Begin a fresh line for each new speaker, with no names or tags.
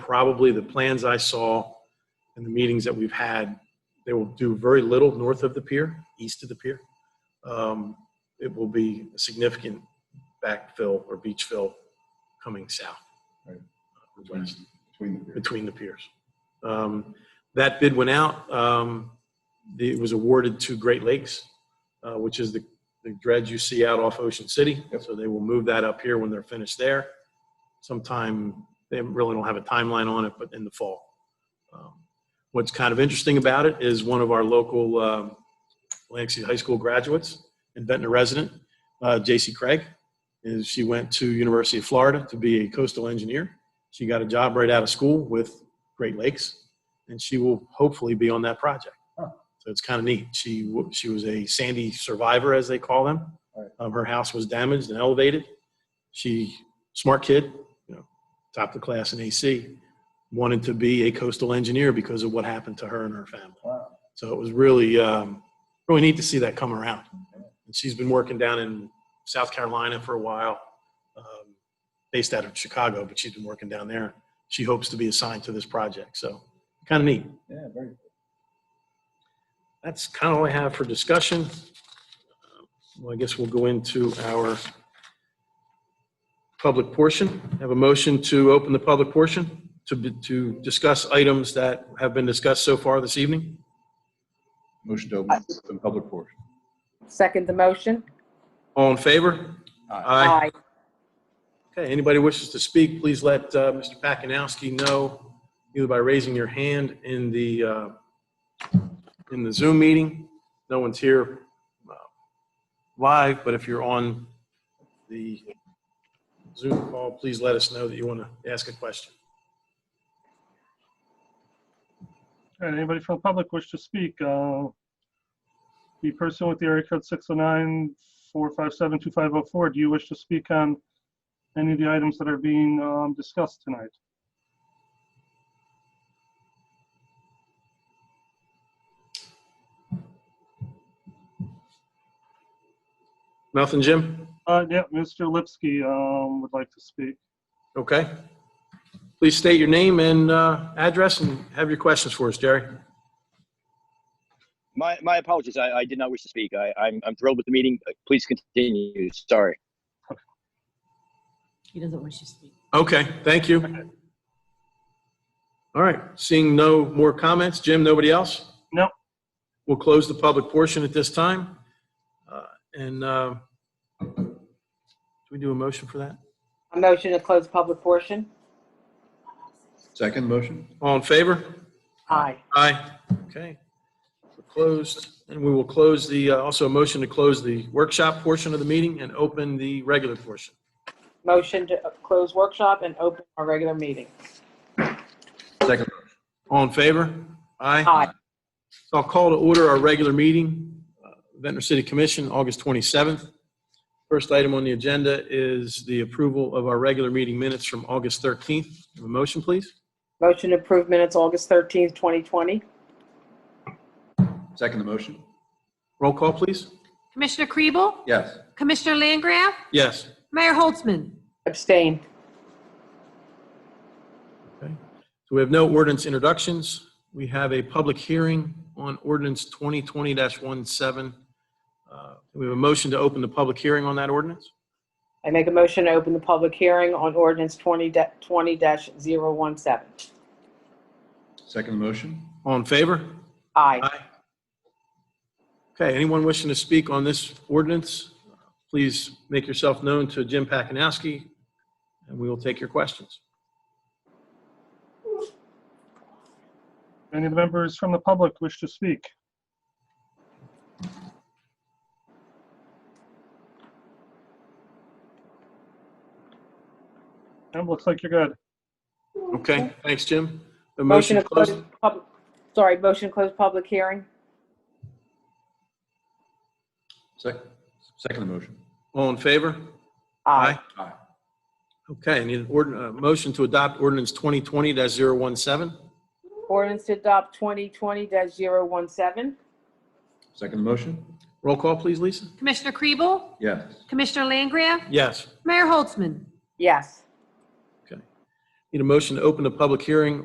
probably the plans I saw and the meetings that we've had, they will do very little north of the pier, east of the pier. Um, It will be a significant backfill or beach fill coming south.
Right.
or West
Between the periods.
between the piers. Um, That bid went out. um, the- It was awarded to Great Lakes, uh, which is the the dredge you see out off Ocean City.
Yep.
So they will move that up here when they're finished there. Sometime, they really don't have a timeline on it, but in the fall. Um, What's kind of interesting about it is one of our local um, Lansing High School graduates and Ventnor resident, uh, J.C. Craig, is she went to University of Florida to be a coastal engineer. She got a job right out of school with Great Lakes, and she will hopefully be on that project.
Huh.
So it's kind of neat. She w- she was a Sandy survivor, as they call them.
Right.
Um, her house was damaged and elevated. She smart kid, you know, top of the class in AC, wanted to be a coastal engineer because of what happened to her and her family.
Wow.
So it was really um, really neat to see that come around. And she's been working down in South Carolina for a while, um, based out of Chicago, but she's been working down there. She hopes to be assigned to this project, so kind of neat.
Yeah, very.
That's kind of all I have for discussion. Well, I guess we'll go into our public portion. Have a motion to open the public portion to, be- to discuss items that have been discussed so far this evening.
Motion to open the public portion.
Second the motion?
All in favor? Aye.
Aye.
Okay, anybody wishes to speak, please let uh, Mr. Pakinowski know either by raising your hand in the, uh, in the Zoom meeting. No one's here uh, live, but if you're on the Zoom call, please let us know that you want to ask a question.
All right, anybody from the public wish to speak? uh, The person with the area code 609-457-2504, do you wish to speak on any of the items that are being um, discussed tonight?
Nothing, Jim?
Uh, Yeah, Mr. Lipsky um, would like to speak.
Okay. Please state your name and uh, address and have your questions for us, Jerry.
My, my apologies. I, I did not wish to speak. I, I'm, I'm thrilled with the meeting. Please continue. Sorry.
He doesn't wish to speak.
Okay, thank you. All right, seeing no more comments, Jim, nobody else?
No.
We'll close the public portion at this time. Uh, And uh, do we do a motion for that?
A motion to close public portion?
Second motion?
All in favor?
Aye.
Aye. Okay. We're Closed, and we will close the, uh, also a motion to close the workshop portion of the meeting and open the regular portion.
Motion to close workshop and open our regular meeting?
Second.
All in favor?
Aye.
So I'll call to order our regular meeting, uh, Ventnor City Commission, August 27th. First item on the agenda is the approval of our regular meeting minutes from August 13th. Have a motion, please?
Motion to approve minutes August 13th, 2020?
Second the motion?
Roll call, please?
Commissioner Kriebel?
Yes.
Commissioner Langgraf?
Yes.
Mayor Holtzman?
Abstain.
Okay. So we have no ordinance introductions. We have a public hearing on ordinance 2020-17. Uh, We have a motion to open the public hearing on that ordinance.
I make a motion to open the public hearing on ordinance 20-017.
Second the motion?
All in favor?
Aye.
Aye. Okay, anyone wishing to speak on this ordinance, please make yourself known to Jim Pakinowski, and we will take your questions.
Any of the members from the public wish to speak? Em, looks like you're good.
Okay, thanks, Jim. The
Motion to
closed.
close, pub- sorry, motion to close public hearing?
Second, second the motion?
All in favor?
Aye.
Okay, I need an ord, a motion to adopt ordinance 2020-017.
Ordinance to adopt 2020-017?
Second the motion?
Roll call, please, Lisa?
Commissioner Kriebel?
Yes.
Commissioner Langgraf?
Yes.
Mayor Holtzman?
Yes.
Need a motion to open the public hearing